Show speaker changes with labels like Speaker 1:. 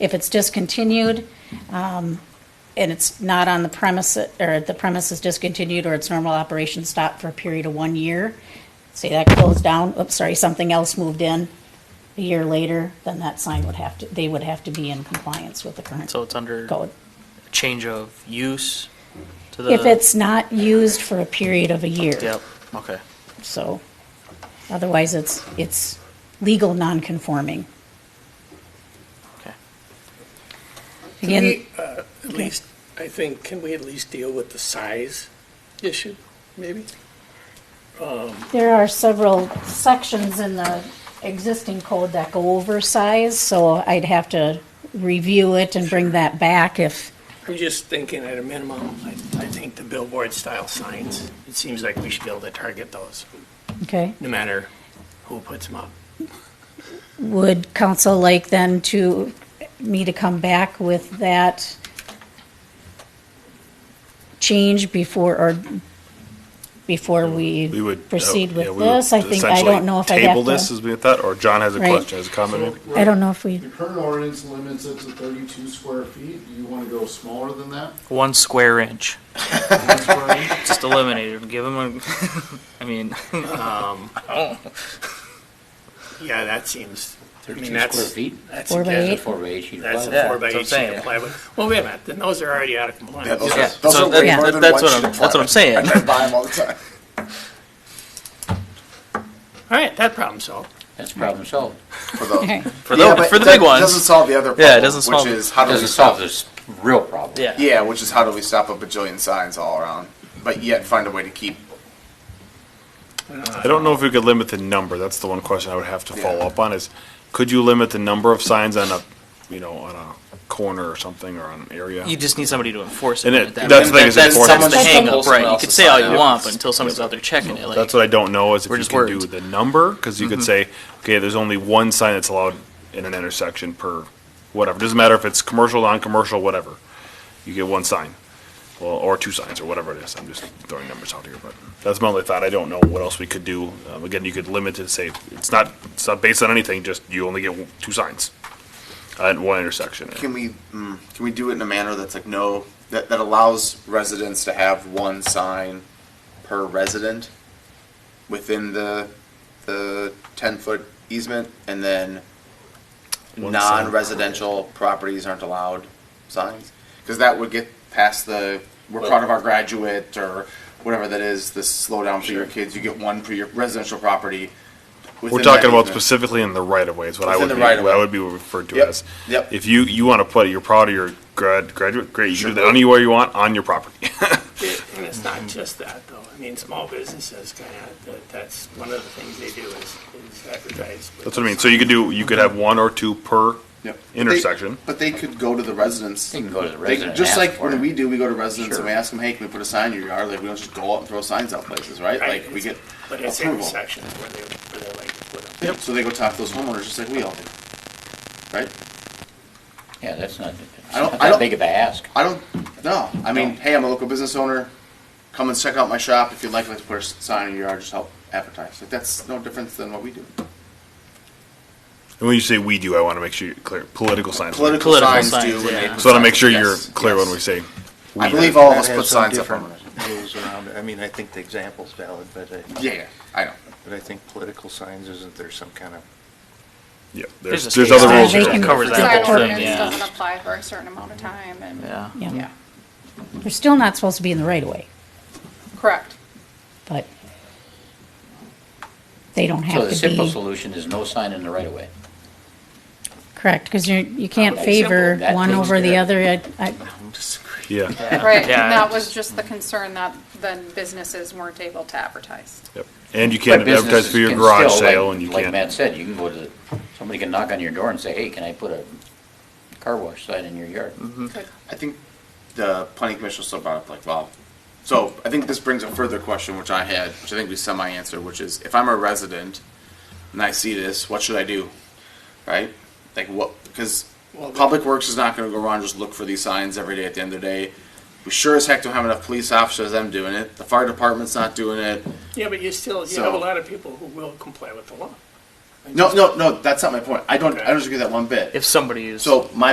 Speaker 1: If it's discontinued, um, and it's not on the premise, or the premise is discontinued, or its normal operation stopped for a period of one year, say that closed down, oops, sorry, something else moved in a year later, then that sign would have to, they would have to be in compliance with the current
Speaker 2: So it's under
Speaker 1: code.
Speaker 2: change of use to the.
Speaker 1: If it's not used for a period of a year.
Speaker 2: Yep, okay.
Speaker 1: So, otherwise, it's, it's legal non-conforming.
Speaker 2: Okay.
Speaker 3: Can
Speaker 1: Again,
Speaker 3: we, uh, At least, I think, can we at least deal with the size issue, maybe?
Speaker 1: there are several sections in the existing code that go over size, so I'd have to review it and bring that back if,
Speaker 3: I'm just thinking at a minimum, I, I think the billboard-style signs, it seems like we should be able to target those,
Speaker 1: okay?
Speaker 3: no matter who puts them up.
Speaker 1: Would council like then to, me to come back with that change before, or before
Speaker 4: We
Speaker 1: we
Speaker 4: would. uh,
Speaker 1: proceed
Speaker 4: yeah,
Speaker 1: with
Speaker 4: we would
Speaker 1: this? I think, I
Speaker 4: essentially
Speaker 1: don't know if I'd have
Speaker 4: Table this
Speaker 1: to.
Speaker 4: as we had thought, or John has a
Speaker 1: Right.
Speaker 4: question, has a comment?
Speaker 1: I don't know if we.
Speaker 5: The current ordinance limits it to thirty-two square feet. Do you want to go smaller than that?
Speaker 2: One square inch,
Speaker 5: One square inch?
Speaker 2: just eliminate it, give them a, I mean,
Speaker 3: Yeah, that seems, I mean,
Speaker 6: Thirty-two square
Speaker 3: that's.
Speaker 6: feet,
Speaker 3: that's-
Speaker 1: Four by
Speaker 3: that's-
Speaker 1: eight?
Speaker 6: four by eight sheet
Speaker 3: That's
Speaker 6: plywood.
Speaker 3: a four by
Speaker 2: that's what I'm
Speaker 3: eight sheet
Speaker 2: saying.
Speaker 3: of plywood. Well, wait a minute, then those are already out of
Speaker 7: Yeah, those
Speaker 3: compliance.
Speaker 2: Yeah,
Speaker 7: are, those
Speaker 2: so
Speaker 7: are way
Speaker 2: yeah,
Speaker 7: more
Speaker 2: that-
Speaker 7: than
Speaker 2: that's
Speaker 7: one
Speaker 2: what
Speaker 7: sheet
Speaker 2: I'm-
Speaker 7: of
Speaker 2: that's what I'm
Speaker 7: plywood.
Speaker 2: saying.
Speaker 7: I drive by them all the time.
Speaker 3: All right, that problem solved.
Speaker 6: That's problem solved.
Speaker 7: For the,
Speaker 1: Okay.
Speaker 2: for the, for the big
Speaker 7: one
Speaker 2: ones.
Speaker 7: Doesn't solve the other problem.
Speaker 2: Yeah, it doesn't solve-
Speaker 7: Which is how do we
Speaker 6: Doesn't solve
Speaker 7: stop?
Speaker 6: this real problem.
Speaker 2: Yeah.
Speaker 7: Yeah, which is how do we stop a bajillion signs all around, but yet find a way to keep.
Speaker 4: I don't know if we could limit the number, that's the one question I would have to follow
Speaker 7: Yeah.
Speaker 4: up on, is could you limit the number of signs on a, you know, on a corner or something, or on an area?
Speaker 2: You just need somebody to enforce it.
Speaker 4: And
Speaker 2: at
Speaker 4: it-
Speaker 2: that
Speaker 4: that's
Speaker 2: point.
Speaker 4: the thing, is
Speaker 2: That's, that's
Speaker 4: enforcement.
Speaker 2: the hang up,
Speaker 7: Someone
Speaker 2: right? You
Speaker 7: else
Speaker 2: could
Speaker 7: is
Speaker 2: say all
Speaker 7: signing
Speaker 2: you
Speaker 7: up.
Speaker 2: want, but until somebody's out there checking it, like.
Speaker 4: That's what I don't know, is if
Speaker 2: We're
Speaker 4: you
Speaker 2: just
Speaker 4: can do
Speaker 2: worried. Mm-hmm.
Speaker 4: the number, because you could say, okay, there's only one sign that's allowed in an intersection per whatever, doesn't matter if it's commercial, non-commercial, whatever. You get one sign, well, or two signs, or whatever it is, I'm just throwing numbers out here, but that's my only thought, I don't know what else we could do. Um, Again, you could limit it, say, it's not, it's not based on anything, just you only get one- two signs at one intersection.
Speaker 7: Can we mm, can we do it in a manner that's like no that that allows residents to have one sign per resident within the the ten foot easement, and then
Speaker 4: One sign.
Speaker 7: non-residential properties aren't allowed signs? Because that would get past the, we're proud of our graduate, or whatever that is, the slowdown for your kids, you get one for your residential property.
Speaker 4: We're
Speaker 7: within
Speaker 4: talking
Speaker 7: that
Speaker 4: about
Speaker 7: easement.
Speaker 4: specifically in the right of way is what I
Speaker 7: Within
Speaker 4: would
Speaker 7: the
Speaker 4: be,
Speaker 7: right
Speaker 4: what
Speaker 7: of
Speaker 4: I
Speaker 7: way.
Speaker 4: would be referred to
Speaker 7: Yep,
Speaker 4: as.
Speaker 7: yep.
Speaker 4: If you, you wanna put it, you're proud of your grad, graduate, great, you
Speaker 7: Sure.
Speaker 4: can do that anywhere you want on your property.
Speaker 3: And it's not just that, though. I mean, small businesses kind of, that's one of the things they do is is advertise. with
Speaker 4: That's what I mean, so you could do, you could have one or two per
Speaker 7: Yep.
Speaker 4: intersection.
Speaker 7: They- But they could go to the residents.
Speaker 6: They can go to the
Speaker 7: They-
Speaker 6: resident and
Speaker 7: Just
Speaker 6: ask
Speaker 7: like
Speaker 6: for
Speaker 7: when
Speaker 6: it.
Speaker 7: we do, we go to residents and we
Speaker 6: Sure.
Speaker 7: ask them, hey, can we put a sign in your yard? Like, we don't just go out and throw signs out places, right?
Speaker 3: Right.
Speaker 7: Like, we get
Speaker 3: But it's
Speaker 7: approval.
Speaker 3: intersections where they, where they like to put them.
Speaker 7: So they go talk to those homeowners just like we all do, right?
Speaker 6: Yeah, that's not, it's
Speaker 7: I don't-
Speaker 6: not
Speaker 7: I
Speaker 6: that
Speaker 7: don't-
Speaker 6: big of a ask.
Speaker 7: I don't, no, I mean, hey, I'm a local business owner, come and check out my shop, if you'd like, let's put a s- sign in your yard, just help advertise, like, that's no difference than what we do.
Speaker 4: And when you say we do, I wanna make sure you're clear, political signs.
Speaker 7: Political
Speaker 2: Political
Speaker 7: signs
Speaker 2: signs,
Speaker 7: do. when
Speaker 2: yeah.
Speaker 7: they put
Speaker 4: So I wanna make
Speaker 7: signs
Speaker 4: sure
Speaker 7: up.
Speaker 4: you're
Speaker 7: Yes,
Speaker 4: clear when
Speaker 7: yes.
Speaker 4: we say.
Speaker 7: I
Speaker 4: we.
Speaker 7: believe all of us
Speaker 8: That
Speaker 7: put
Speaker 8: has some
Speaker 7: signs up
Speaker 8: different
Speaker 7: on it.
Speaker 8: Rules around it. I mean, I think the example's valid, but I,
Speaker 7: Yeah, yeah, I know.
Speaker 8: but I think political signs, isn't there some kind of
Speaker 4: Yeah, there's,
Speaker 2: There's a
Speaker 4: there's
Speaker 2: state
Speaker 4: other
Speaker 2: statute
Speaker 4: rules.
Speaker 1: that
Speaker 4: here.
Speaker 2: covers that
Speaker 1: Sign Or-
Speaker 2: whole
Speaker 9: Sign
Speaker 2: thing,
Speaker 9: ordinance
Speaker 2: yeah.
Speaker 9: doesn't apply for a certain amount of time and.
Speaker 2: Yeah.
Speaker 1: Yeah,
Speaker 9: Yeah,
Speaker 1: they're still not supposed to be in the right of way,
Speaker 9: correct.
Speaker 1: but they don't
Speaker 6: So
Speaker 1: have
Speaker 6: the
Speaker 1: to
Speaker 6: simple
Speaker 1: be,
Speaker 6: solution is no sign in the right of way.
Speaker 1: correct, because you, you can't
Speaker 6: Okay, simple.
Speaker 1: favor
Speaker 6: That
Speaker 1: one
Speaker 6: takes
Speaker 1: over the
Speaker 6: care
Speaker 1: other. I- I-
Speaker 4: Yeah,
Speaker 9: Right, and
Speaker 2: Yeah.
Speaker 9: that was just the concern that then businesses weren't able to advertise.
Speaker 4: yep. And you
Speaker 6: But
Speaker 4: can't advertise for
Speaker 6: businesses
Speaker 4: your
Speaker 6: can
Speaker 4: garage
Speaker 6: still,
Speaker 4: sale
Speaker 6: like-
Speaker 4: and you
Speaker 6: Like
Speaker 4: can't.
Speaker 6: Matt said, you can go to, the somebody can knock on your door and say, hey, can I put a car wash sign in your yard?
Speaker 2: Mm-hmm.
Speaker 9: Could-
Speaker 7: I think the planning commission still brought up like, well, so I think this brings a further question, which I had, which I think we semi-answered, which is if I'm a resident and I see this, what should I do? Right? Like what, because Public Works is not gonna go around and just look for these signs every day at the end of the day. We sure as heck don't have enough police officers, them doing it. The fire department's not doing it.
Speaker 3: Yeah, but you still, you have a
Speaker 7: So-
Speaker 3: lot of people who will comply with the law.
Speaker 7: No, no, no, that's not my point. I don't, I don't agree with that one bit.
Speaker 2: If somebody is.
Speaker 7: So my